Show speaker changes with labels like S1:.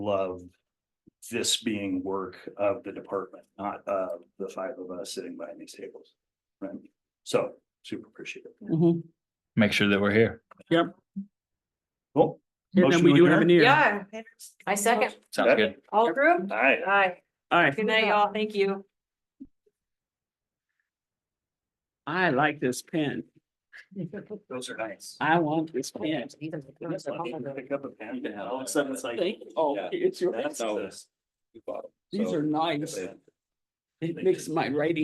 S1: love this being work of the department, not of the five of us sitting behind these tables. Right? So super appreciative.
S2: Mhm.
S3: Make sure that we're here.
S1: Cool.
S2: And then we do have an ear.
S4: Yeah. I second.
S3: Sounds good.
S4: All approved?
S1: Hi.
S4: Aye.
S2: All right,
S4: Good night, y'all. Thank you.
S2: I like this pen.
S1: Those are nice.
S2: I want this pen.
S1: Pick up a pen and all of a sudden it's like.
S2: Thank- Oh,
S1: yeah,
S2: it's yours.
S1: that's the-
S2: These are nice. It makes my writing